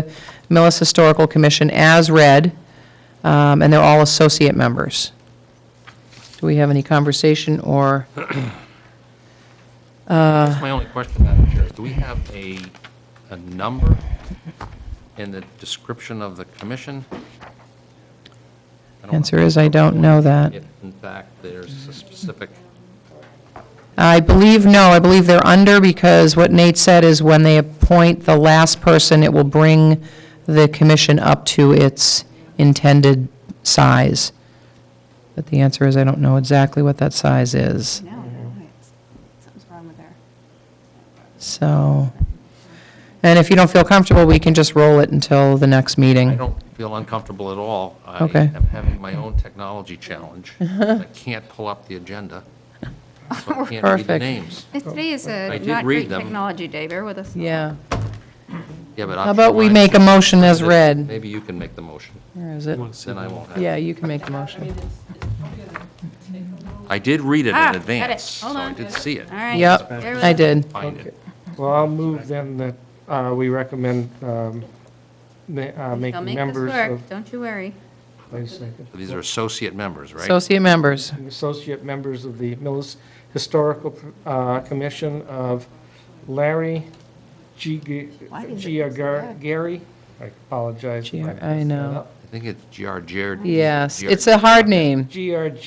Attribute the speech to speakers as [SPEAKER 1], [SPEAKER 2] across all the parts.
[SPEAKER 1] the Millis Historical Commission as read, um, and they're all associate members. Do we have any conversation or,
[SPEAKER 2] That's my only question, Madam Chair. Do we have a, a number in the description of the commission? I don't
[SPEAKER 1] answer
[SPEAKER 2] recall
[SPEAKER 1] is, I don't know that.
[SPEAKER 2] if, In fact, there's a specific,
[SPEAKER 1] I believe, no, I believe they're under, because what Nate said is when they appoint the last person, it will bring the commission up to its intended size. But the answer is, I don't know exactly what that size is,
[SPEAKER 3] No, no, it's- something's wrong with her.
[SPEAKER 1] so. And if you don't feel comfortable, we can just roll it until the next meeting.
[SPEAKER 2] I don't feel uncomfortable at all.
[SPEAKER 1] Okay.
[SPEAKER 2] I am having my own technology challenge. I can't pull up the agenda, so I can't read the
[SPEAKER 1] Perfect.
[SPEAKER 2] names.
[SPEAKER 3] This- Today is
[SPEAKER 2] I
[SPEAKER 3] a
[SPEAKER 2] did
[SPEAKER 3] not
[SPEAKER 2] read
[SPEAKER 3] great
[SPEAKER 2] them.
[SPEAKER 3] technology day, bear with us.
[SPEAKER 1] Oh, Yeah.
[SPEAKER 2] Yeah, but
[SPEAKER 1] How about we
[SPEAKER 2] option
[SPEAKER 1] make a
[SPEAKER 2] one-
[SPEAKER 1] motion as read?
[SPEAKER 2] Maybe you can make the motion,
[SPEAKER 1] Where is it?
[SPEAKER 2] then I won't have.
[SPEAKER 1] Yeah, you can make the motion.
[SPEAKER 2] I did read it
[SPEAKER 3] Ah,
[SPEAKER 2] in
[SPEAKER 3] got it.
[SPEAKER 2] advance, so
[SPEAKER 3] Hold
[SPEAKER 2] I
[SPEAKER 3] on.
[SPEAKER 2] did see it.
[SPEAKER 3] All right.
[SPEAKER 1] Yep,
[SPEAKER 3] bear with
[SPEAKER 1] I
[SPEAKER 3] us.
[SPEAKER 1] did.
[SPEAKER 2] Find it.
[SPEAKER 4] Well, I'll move then that uh, we recommend um, ma- uh,
[SPEAKER 3] They'll
[SPEAKER 4] making
[SPEAKER 3] make this
[SPEAKER 4] members of,
[SPEAKER 3] work, don't you worry.
[SPEAKER 4] wait a second.
[SPEAKER 2] These are associate members, right?
[SPEAKER 1] Associate members.
[SPEAKER 4] associate members of the Millis Historical uh, Commission of Larry G. G-
[SPEAKER 3] Why is it
[SPEAKER 4] Giagar- Gary, I apologize. if
[SPEAKER 1] G-
[SPEAKER 4] messed
[SPEAKER 1] I know.
[SPEAKER 4] that up.
[SPEAKER 2] I think it's G.R. Jared.
[SPEAKER 1] Yes,
[SPEAKER 2] Jared-
[SPEAKER 1] it's a hard name.
[SPEAKER 4] G.R.
[SPEAKER 2] Larry,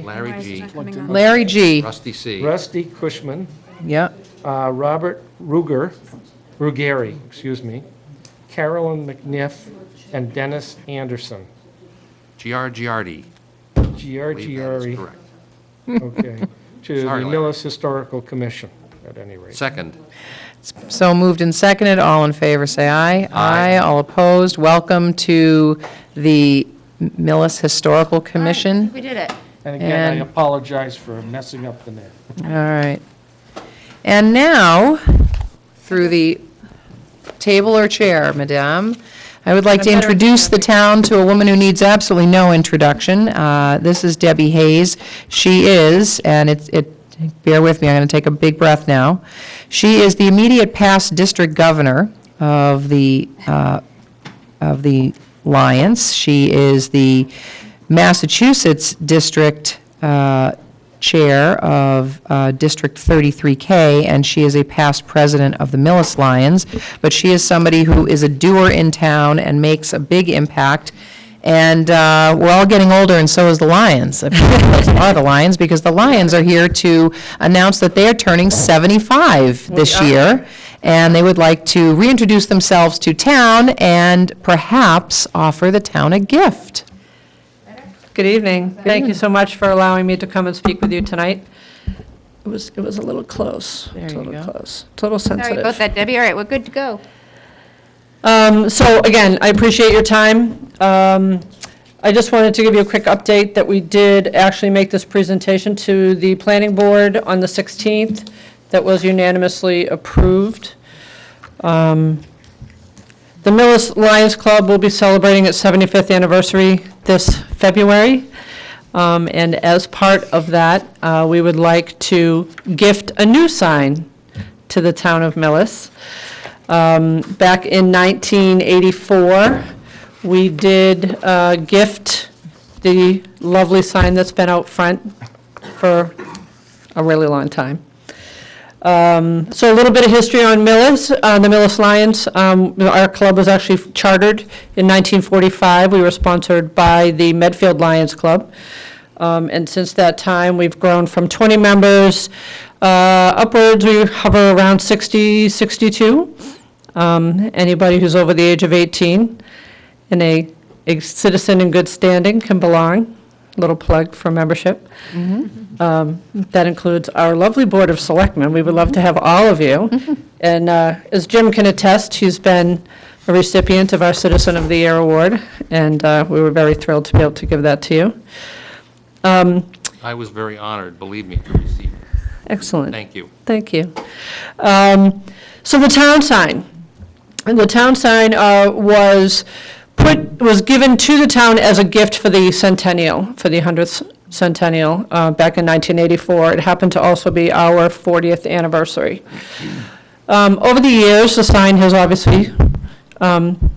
[SPEAKER 4] Giary,
[SPEAKER 2] Larry
[SPEAKER 3] Otherwise it's
[SPEAKER 2] G,
[SPEAKER 3] not coming on.
[SPEAKER 1] Larry G.
[SPEAKER 2] Rusty C.
[SPEAKER 4] Rusty Cushman,
[SPEAKER 1] Yep.
[SPEAKER 4] uh, Robert Ruger, Ruggieri, excuse me, Carolyn McNiff, and Dennis Anderson.
[SPEAKER 2] G.R. Giardi. I
[SPEAKER 4] G.R.
[SPEAKER 2] believe that is
[SPEAKER 4] Giary.
[SPEAKER 2] correct.
[SPEAKER 4] Okay, to the
[SPEAKER 2] Sorry, Larry.
[SPEAKER 4] Millis Historical Commission, at any rate.
[SPEAKER 2] Second,
[SPEAKER 1] So moved and seconded, all in favor, say aye.
[SPEAKER 2] Aye.
[SPEAKER 1] All opposed, welcome to the Millis Historical
[SPEAKER 3] All right,
[SPEAKER 1] Commission.
[SPEAKER 3] We did it.
[SPEAKER 4] And again,
[SPEAKER 1] And-
[SPEAKER 4] I apologize for messing up the name.
[SPEAKER 1] All right. And now, through the table or chair, Madame, I would like to introduce the town to a woman who needs absolutely no introduction. Uh, This is Debbie Hayes. She is, and it's, it, bear with me, I'm going to take a big breath now. She is the immediate past district governor of the uh, of the Lions. She is the Massachusetts District uh, Chair of uh, District 33K, and she is a past president of the Millis Lions. But she is somebody who is a doer in town and makes a big impact. And uh, we're all getting older, and so is the Lions. I mean, Those are the Lions, because the Lions are here to announce that they are turning 75 this year, and they would like to reintroduce themselves to town and perhaps offer the town a gift.
[SPEAKER 5] Good evening. Thank you so much for allowing me to come and speak with you tonight. It was, it was a little close,
[SPEAKER 1] you
[SPEAKER 5] total
[SPEAKER 1] go.
[SPEAKER 5] close, total
[SPEAKER 3] Sorry about
[SPEAKER 5] sensitive.
[SPEAKER 3] that, Debbie, all right, we're good to go.
[SPEAKER 5] Um, So again, I appreciate your time. Um, I just wanted to give you a quick update that we did actually make this presentation to the planning board on the 16th that was unanimously approved. Um, The Millis Lions Club will be celebrating its 75th anniversary this February. Um, And as part of that, uh, we would like to gift a new sign to the town of Millis. Um, Back in 1984, we did uh, gift the lovely sign that's been out front for a really long time. Um, So a little bit of history on Millis, uh, the Millis Lions. Um, Our club was actually chartered in 1945. We were sponsored by the Medfield Lions Club. Um, And since that time, we've grown from 20 members uh, upwards, we hover around 60, 62. Um, Anybody who's over the age of 18 and a a citizen in good standing can belong. Little plug for membership. Um, That includes our lovely Board of Selectmen. We would love to have all of you. And uh, as Jim can attest, he's been a recipient of our Citizen of the Year Award, and uh, we were very thrilled to be able to give that to you. Um,
[SPEAKER 2] I was very honored, believe me, to receive. it.
[SPEAKER 5] Excellent.
[SPEAKER 2] Thank you.
[SPEAKER 5] Thank you. Um, So the town sign, And the town sign uh, was put, was given to the town as a gift for the centennial, for the 100th centennial uh, back in 1984. It happened to also be our 40th anniversary. Um, Over the years, the sign has obviously um, um,